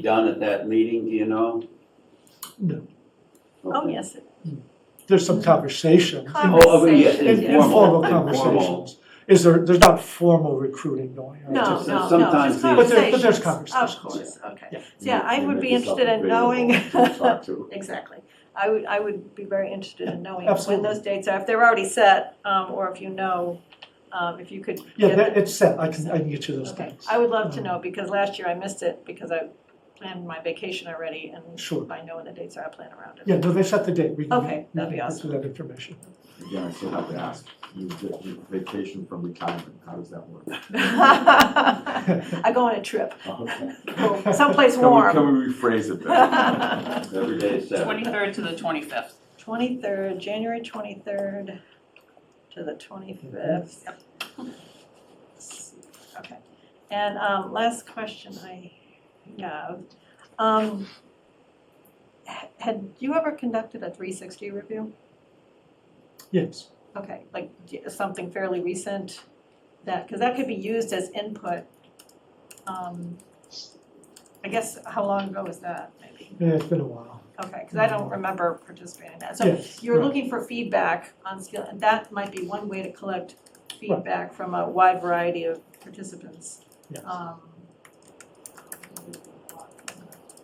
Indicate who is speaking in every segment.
Speaker 1: done at that meeting, do you know?
Speaker 2: No.
Speaker 3: Oh,
Speaker 1: Okay.
Speaker 3: yes,
Speaker 2: There's some conversation,
Speaker 1: Oh, oh, yes,
Speaker 3: Conversation,
Speaker 2: in-
Speaker 3: yeah.
Speaker 1: informal,
Speaker 2: informal
Speaker 1: informal.
Speaker 2: conversations. Is there, there's not formal recruiting going on.
Speaker 3: no,
Speaker 1: Just uh,
Speaker 3: no, no,
Speaker 1: sometimes
Speaker 3: just
Speaker 1: the-
Speaker 2: But there- but
Speaker 3: conversations,
Speaker 2: there's
Speaker 3: of
Speaker 2: conversations,
Speaker 3: course, okay.
Speaker 2: Yeah.
Speaker 3: So, Yeah, I
Speaker 4: They
Speaker 3: would
Speaker 4: make
Speaker 3: be
Speaker 4: yourself
Speaker 3: interested in knowing,
Speaker 4: available to talk to.
Speaker 3: exactly. I would, I would be very interested in knowing when
Speaker 2: absolutely.
Speaker 3: those dates are, if they're already set, um, or if you know, um, if you could
Speaker 2: Yeah,
Speaker 3: get
Speaker 2: that,
Speaker 3: the-
Speaker 2: it's set, I can, I can get you those
Speaker 3: Okay,
Speaker 2: things.
Speaker 3: I would love to
Speaker 2: Um,
Speaker 3: know, because last year I missed it, because I planned my vacation already, and
Speaker 2: Sure.
Speaker 3: by knowing the dates, I plan around it.
Speaker 2: Yeah, no, they set the date. We can-
Speaker 3: Okay,
Speaker 2: we
Speaker 3: that'd
Speaker 2: can
Speaker 3: be
Speaker 2: get
Speaker 3: awesome.
Speaker 2: to that information.
Speaker 4: Again, I still have to ask, you did- you vacation from retirement, how does that work?
Speaker 3: I go on a trip,
Speaker 4: Okay.
Speaker 3: go someplace
Speaker 4: Can we,
Speaker 3: warm.
Speaker 4: can we rephrase it then?
Speaker 1: Every day is Saturday.
Speaker 5: Twenty-third to the twenty-fifth.
Speaker 3: Twenty-third, January twenty-third to the twenty-fifth. Okay, and, um, last question I have, um, h- had you ever conducted a three sixty review?
Speaker 2: Yes.
Speaker 3: Okay, like d- something fairly recent that, because that could be used as input. Um, I guess, how long ago was that, maybe?
Speaker 2: Yeah, it's been a while.
Speaker 3: Okay, because I don't remember participating in that. So
Speaker 2: Yes,
Speaker 3: you're
Speaker 2: right.
Speaker 3: looking for feedback on skill, and that might be one way to collect feedback from a wide variety of participants.
Speaker 2: Yes.
Speaker 3: Um,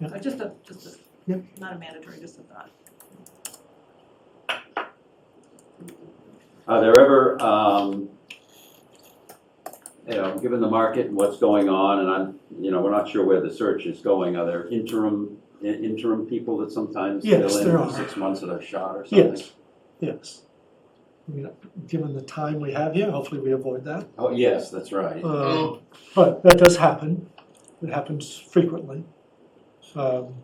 Speaker 2: Yeah.
Speaker 3: But Uh, just a, just
Speaker 2: Yeah.
Speaker 3: a, not a mandatory, just a thought.
Speaker 1: Are there ever, um, you know, given the market and what's going on, and I'm, you know, we're not sure where the search is going, are there interim, i- interim people that sometimes fill
Speaker 2: Yes, there
Speaker 1: in
Speaker 2: are.
Speaker 1: for six months that are shot or something?
Speaker 2: Yes, yes. I mean, given the time we have here, hopefully we avoid that.
Speaker 1: Oh, yes, that's right.
Speaker 2: Um, But that does happen. It happens frequently. Um,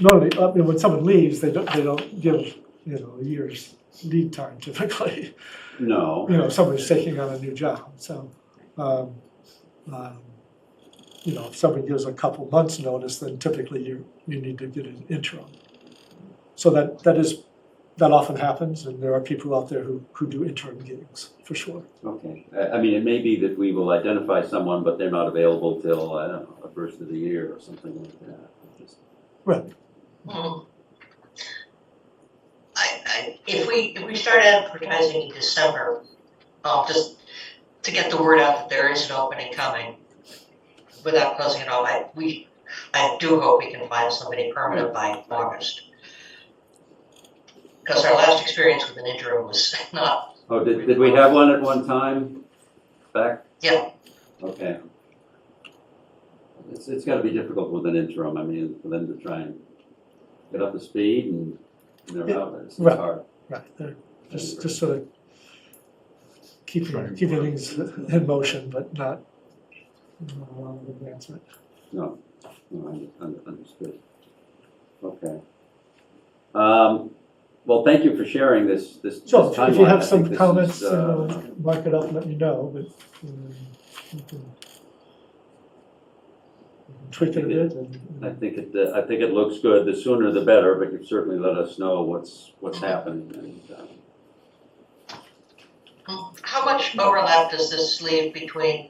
Speaker 2: Normally, I mean, when someone leaves, they don't, they don't give, you know, a year's lead time typically.
Speaker 1: No.
Speaker 2: you know, somebody's taking on a new job, so, um, um, you know, if somebody gives a couple months' notice, then typically you, you need to get an interim. So that, that is, that often happens, and there are people out there who, who do interim gigs, for sure.
Speaker 1: Okay, I, I mean, it may be that we will identify someone, but they're not available till, I don't know, the first of the year or something like that. Just-
Speaker 2: Right,
Speaker 6: Mm. I, I, if we, if we start advertising in December, um, just to get the word out that there is an opening coming, without closing it all, I, we, I do hope we can find somebody permanent by August. Because our last experience with an interim was not,
Speaker 1: Oh, did, did we have one at one time back?
Speaker 6: Yeah.
Speaker 1: Okay. It's, it's gotta be difficult with an interim, I mean, for them to try and get up to speed and, you know,
Speaker 2: Yeah,
Speaker 1: how it's it's
Speaker 2: right.
Speaker 1: hard.
Speaker 2: right, they're just, just sort of keeping, keeping things in motion, but not, not a lot of advancement.
Speaker 1: No, no, I under- under- understood. Okay. Um, well, thank you for sharing this, this this
Speaker 2: So
Speaker 1: timeline.
Speaker 2: if you
Speaker 1: I
Speaker 2: have
Speaker 1: think this
Speaker 2: some
Speaker 1: is,
Speaker 2: comments, you
Speaker 1: uh,
Speaker 2: know, mark it up, let me know, but um, you can tweak it a bit and.
Speaker 1: I think it, uh, I think it looks good, the sooner the better, but you certainly let us know what's, what's happening. and, uh,
Speaker 6: how much overlap does this leave between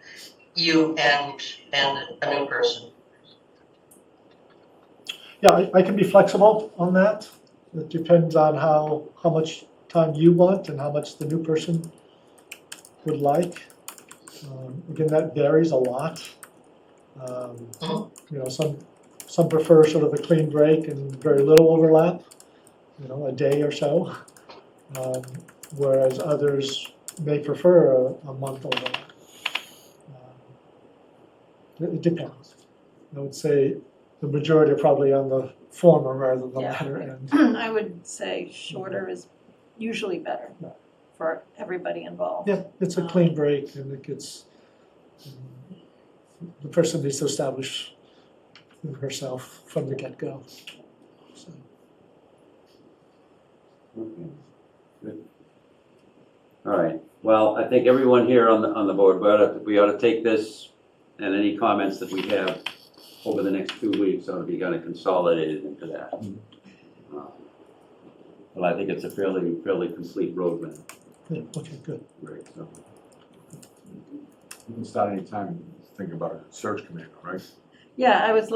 Speaker 6: you and, and a new person?
Speaker 2: Yeah, I, I can be flexible on that. It depends on how, how much time you want and how much the new person would like. Um, Again, that varies a lot. Um, You know, some, some prefer sort of a clean break and very little overlap, you know, a day or so. Um, Whereas others may prefer a, a month overlap. Um, It, it depends. I would say the majority are probably on the former rather than the
Speaker 3: Yeah.
Speaker 2: latter end.
Speaker 3: I would say shorter is usually better
Speaker 2: Yeah.
Speaker 3: for everybody involved.
Speaker 2: Yeah, it's a clean break and it gets, um, the person needs to establish herself from the get-go. So,
Speaker 1: Okay, good. All right, well, I think everyone here on the, on the board, we ought to, we ought to take this and any comments that we have over the next two weeks ought to be kind of consolidated into that.
Speaker 4: Mhm.
Speaker 1: Um, Well, I think it's a fairly, fairly complete roadmap,
Speaker 2: yeah, okay, good.
Speaker 1: right, so.
Speaker 4: You can start anytime, think about a search committee, all right?
Speaker 3: Yeah, I was